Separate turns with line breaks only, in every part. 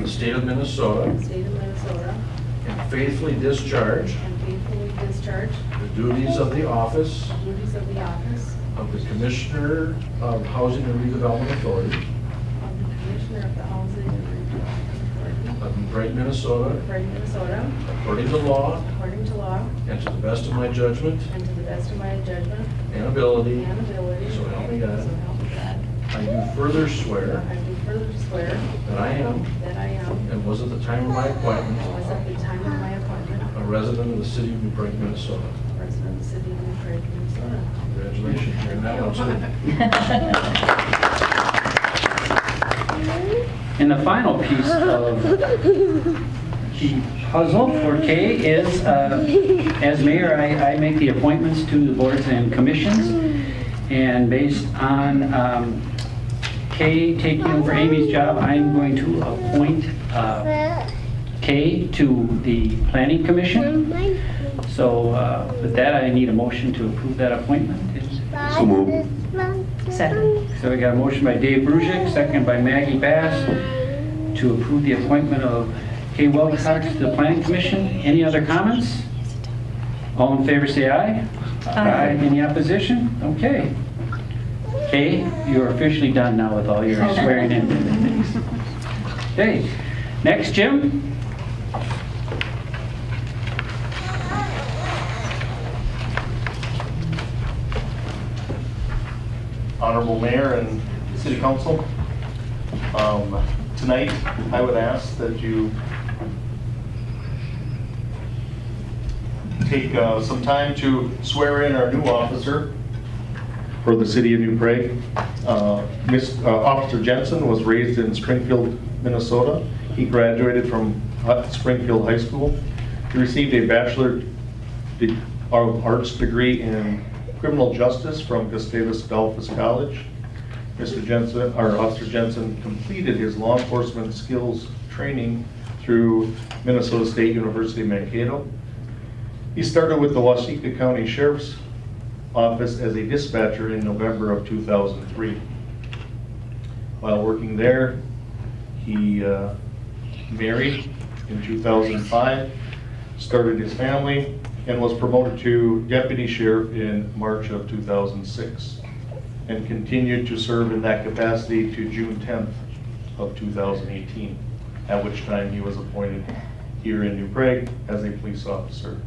the state of Minnesota
state of Minnesota,
and faithfully discharge
and faithfully discharge
the duties of the office
the duties of the office
of the Commissioner of Housing and Redevelopment Authority
of the Commissioner of the Housing and Redevelopment Authority
of Brighton, Minnesota,
of Brighton, Minnesota,
according to law
according to law
and to the best of my judgment
and to the best of my judgment
and ability.
and ability.
So help me God.
So help me God. Uh,
I do further swear
I do further swear
that I am
that I am,
and was at the time of my
and was
appointment
at the time of my appointment,
a resident of the city of New Brighton, Minnesota.
a resident of the city of New Brighton, Minnesota.
Congratulations, you're now on city.
And the final piece of the puzzle for Kay is, uh, as mayor, I I make the appointments to the boards and commissions, and based on um, Kay taking over Amy's job, I'm going to appoint uh, Kay to the planning commission. So uh, with that, I need a motion to approve that appointment. Is-
So moved.
Second.
So we got a motion by Dave Brusick, second by Maggie Bass to approve the appointment of Kay Wilcox to the Planning Commission. Any other comments? All in favor, say aye. Any opposition? Okay. Kay, you're officially done now with all your swearing in. Okay, next, Jim?
Honorable Mayor and City Council, um, tonight, I would ask that you take uh, some time to swear in our new officer for the City of New Prague. Uh, Miss- uh, Officer Jensen was raised in Springfield, Minnesota. He graduated from Hut- Springfield High School. He received a Bachelor de- of Arts degree in Criminal Justice from Gustavus Adolphus College. Mr. Jensen, or Officer Jensen completed his law enforcement skills training through Minnesota State University Mankato. He started with the Wasika County Sheriff's Office as a dispatcher in November of 2003. While working there, he uh, married in 2005, started his family, and was promoted to deputy sheriff in March of 2006, and continued to serve in that capacity to June 10th of 2018, at which time he was appointed here in New Prague as a police officer.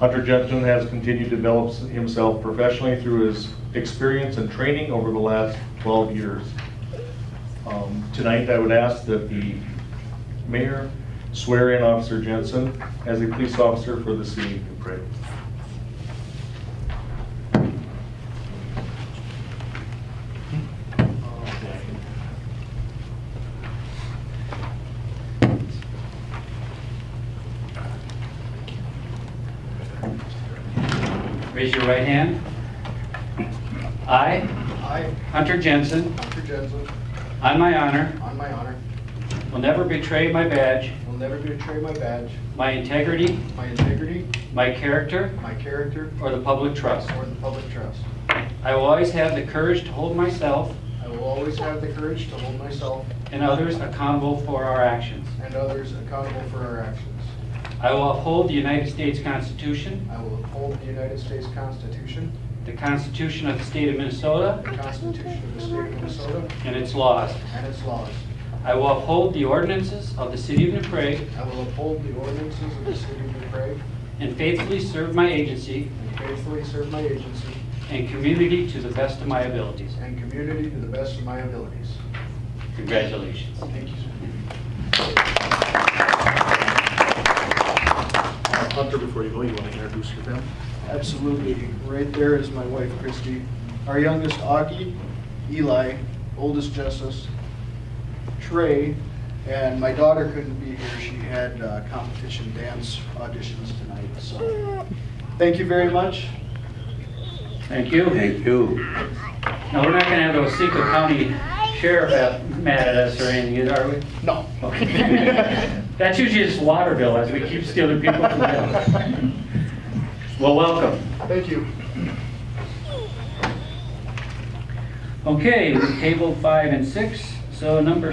Hunter Jensen has continued to develop himself professionally through his experience and training over the last 12 years. Um, Tonight, I would ask that the mayor swear in Officer Jensen as a police officer for the city of New Prague.
Raise your right hand. I,
I,
Hunter Jensen,
Hunter Jensen,
on my honor,
on my honor,
will never betray my badge,
will never betray my badge,
my integrity,
my integrity,
my character,
my character,
or the public trust.
or the public trust.
I will always have the courage to hold myself
I will always have the courage to hold myself
and others accountable for our actions.
and others accountable for our actions.
I will uphold the United States Constitution,
I will uphold the United States Constitution,
the Constitution of the State of Minnesota,
the Constitution of the State of Minnesota,
and its laws.
and its laws.
I will uphold the ordinances of the City of New Prague
I will uphold the ordinances of the City of New Prague
and faithfully serve my agency
and faithfully serve my agency
and community to the best of my abilities.
and community to the best of my abilities.
Congratulations.
Thank you, sir.
Hunter, before you go, you want to introduce your family?
Absolutely. Right there is my wife, Christy. Our youngest, Augie, Eli, oldest, Jessus, Trey, and my daughter couldn't be here. She had uh, competition dance auditions tonight, so thank you very much.
Thank you.
Thank you.
Now, we're not going to have the Osceola County Sheriff at- mad at us or anything, are we?
No.
Okay. That's usually just water bill as we keep stealing people from them. Well, welcome.
Thank you.
Okay, we tabled five and six, so number